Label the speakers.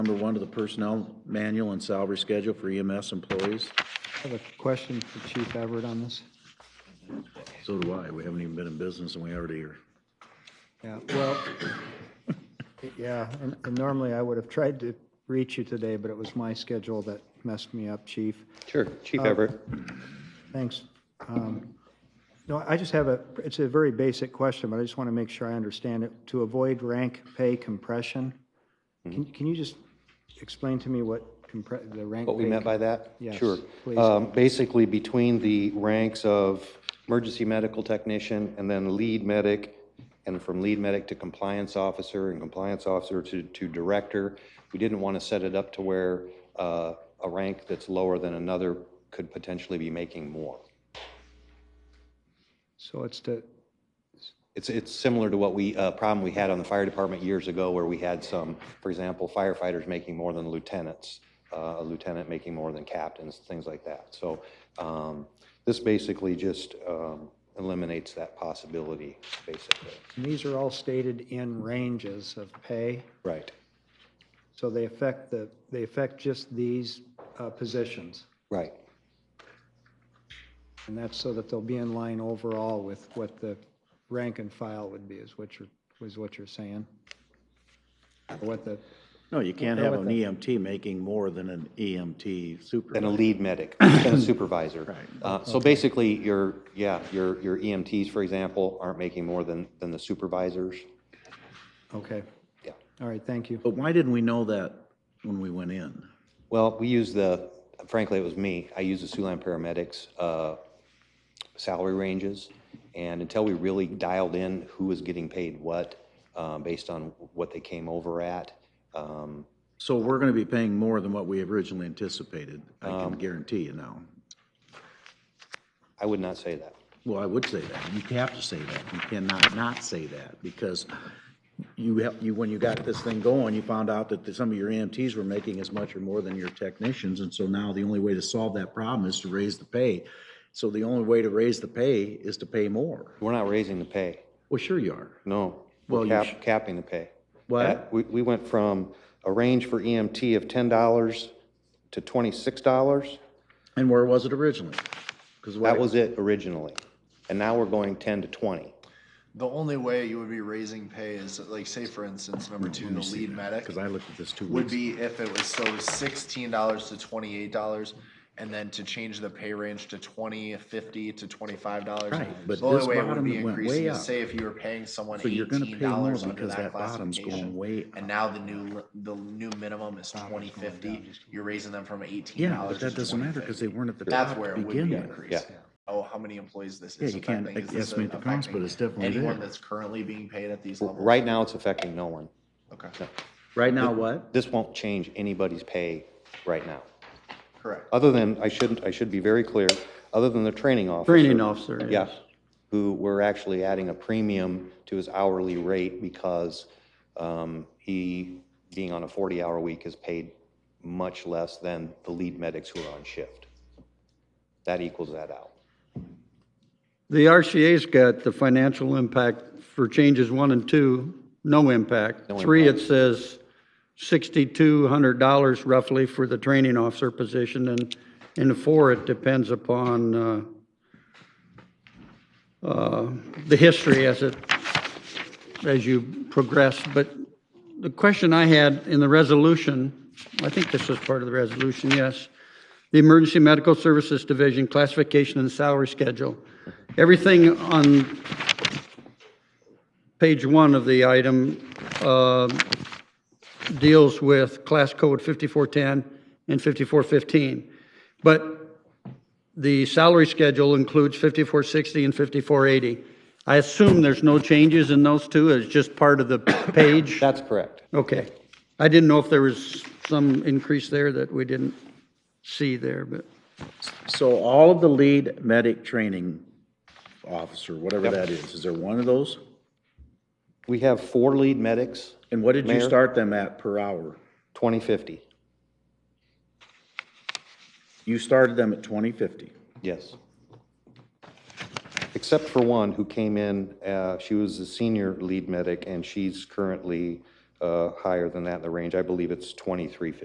Speaker 1: Number one, to the personnel manual and salary schedule for EMS employees.
Speaker 2: I have a question for Chief Everett on this.
Speaker 1: So do I. We haven't even been in business and we already are.
Speaker 2: Yeah, well, yeah, and and normally I would have tried to reach you today, but it was my schedule that messed me up, Chief.
Speaker 3: Sure, Chief Everett.
Speaker 2: Thanks. Um, No, I just have a, it's a very basic question, but I just want to make sure I understand it. To avoid rank pay compression,
Speaker 3: Mm-hmm.
Speaker 2: can can you just explain to me what compre- the rank?
Speaker 3: What we
Speaker 2: pay
Speaker 3: meant by that?
Speaker 2: Yes,
Speaker 3: Sure.
Speaker 2: please.
Speaker 3: Um, Basically, between the ranks of emergency medical technician and then lead medic, and from lead medic to compliance officer and compliance officer to, to director, we didn't want to set it up to where uh, a rank that's lower than another could potentially be making more.
Speaker 2: So it's to,
Speaker 3: It's, it's similar to what we, uh, problem we had on the fire department years ago where we had some, for example, firefighters making more than lieutenants, uh, a lieutenant making more than captains, things like that. So, um, this basically just, um, eliminates that possibility, basically.
Speaker 2: and these are all stated in ranges of pay,
Speaker 3: Right.
Speaker 2: so they affect the, they affect just these uh, positions.
Speaker 3: Right.
Speaker 2: And that's so that they'll be in line overall with what the rank and file would be, is what you're, was what you're saying? Or what the,
Speaker 1: No, you can't have an EMT making more than an EMT
Speaker 3: Than a
Speaker 1: supervisor.
Speaker 3: lead medic, than a supervisor.
Speaker 1: Right.
Speaker 3: Uh, so basically, your, yeah, your, your EMTs, for example, aren't making more than, than the supervisors.
Speaker 2: okay,
Speaker 3: Yeah.
Speaker 2: all right, thank you.
Speaker 1: But why didn't we know that when we went in?
Speaker 3: Well, we use the, frankly, it was me. I use the Siouxland paramedics' uh, salary ranges. And until we really dialed in who was getting paid what, um, based on what they came over at, um,
Speaker 1: So we're going to be paying more than what we originally anticipated. I can guarantee you now.
Speaker 3: I would not say that.
Speaker 1: Well, I would say that. You have to say that. You cannot not say that because you have, you, when you got this thing going, you found out that some of your EMTs were making as much or more than your technicians. And so now the only way to solve that problem is to raise the pay. So the only way to raise the pay is to pay more.
Speaker 3: We're not raising the pay.
Speaker 1: Well, sure you are.
Speaker 3: No.
Speaker 1: Well,
Speaker 3: We're
Speaker 1: you
Speaker 3: cap-
Speaker 1: sh-
Speaker 3: capping the pay.
Speaker 1: What?
Speaker 3: That- We, we went from a range for EMT of $10 to $26.
Speaker 1: And where was it originally? Because
Speaker 3: That was it originally. And now we're going 10 to 20.
Speaker 4: The only way you would be raising pay is, like, say for instance, number two, the lead medic
Speaker 1: Because I looked at this two
Speaker 4: would
Speaker 1: weeks.
Speaker 4: be if it was, so it was sixteen dollars to twenty-eight dollars, and then to change the pay range to twenty, fifty to twenty-five dollars.
Speaker 1: Right, but
Speaker 4: The only
Speaker 1: this
Speaker 4: way it would
Speaker 1: bottom
Speaker 4: be
Speaker 1: went way
Speaker 4: increasing
Speaker 1: up.
Speaker 4: is say if you were paying someone
Speaker 1: So you're gonna pay
Speaker 4: eighteen
Speaker 1: more
Speaker 4: dollars under
Speaker 1: because
Speaker 4: that
Speaker 1: that bottom's going
Speaker 4: classification.
Speaker 1: way
Speaker 4: And now the new, li- the new minimum is twenty fifty, you're raising them from eighteen
Speaker 1: Yeah, but
Speaker 4: dollars to
Speaker 1: that doesn't
Speaker 4: twenty
Speaker 1: matter because
Speaker 4: fifty.
Speaker 1: they weren't at the
Speaker 4: That's
Speaker 1: top
Speaker 4: where
Speaker 1: to
Speaker 4: it would be
Speaker 1: begin with.
Speaker 4: increased. Oh, how many employees this is
Speaker 1: Yeah, you can't
Speaker 4: affecting? Is this
Speaker 1: estimate the cost, but
Speaker 4: affecting
Speaker 1: it's definitely
Speaker 4: Anyone
Speaker 1: there.
Speaker 4: that's currently being paid at these levels?
Speaker 3: Right now, it's affecting no one.
Speaker 4: Okay,
Speaker 1: Right now, what?
Speaker 3: this won't change anybody's pay right now.
Speaker 4: correct.
Speaker 3: Other than, I shouldn't, I should be very clear, other than the training officer.
Speaker 5: Training officer,
Speaker 3: Yeah,
Speaker 5: yes.
Speaker 3: who we're actually adding a premium to his hourly rate because um, he, being on a 40-hour week, is paid much less than the lead medics who are on shift. That equals that out.
Speaker 5: The RCA's got the financial impact for changes one and two, no impact. Three, it says $6,200 roughly for the training officer position, and in four, it depends upon uh, uh, the history as it, as you progress. But the question I had in the resolution, I think this was part of the resolution, yes, the Emergency Medical Services Division classification and salary schedule. Everything on page one of the item uh, deals with class code 5410 and 5415. But the salary schedule includes 5460 and 5480. I assume there's no changes in those two, it's just part of the page?
Speaker 3: That's correct.
Speaker 5: Okay. I didn't know if there was some increase there that we didn't see there, but,
Speaker 1: So all of the lead medic training officer, whatever that is, is there one of those?
Speaker 3: We have four lead medics,
Speaker 1: And what did you
Speaker 3: Mayor?
Speaker 1: start them at per hour?
Speaker 3: 2050.
Speaker 1: You started them at twenty fifty.
Speaker 3: Yes. Except for one who came in, uh, she was a senior lead medic, and she's currently uh, higher than that in the range. I believe it's 2350.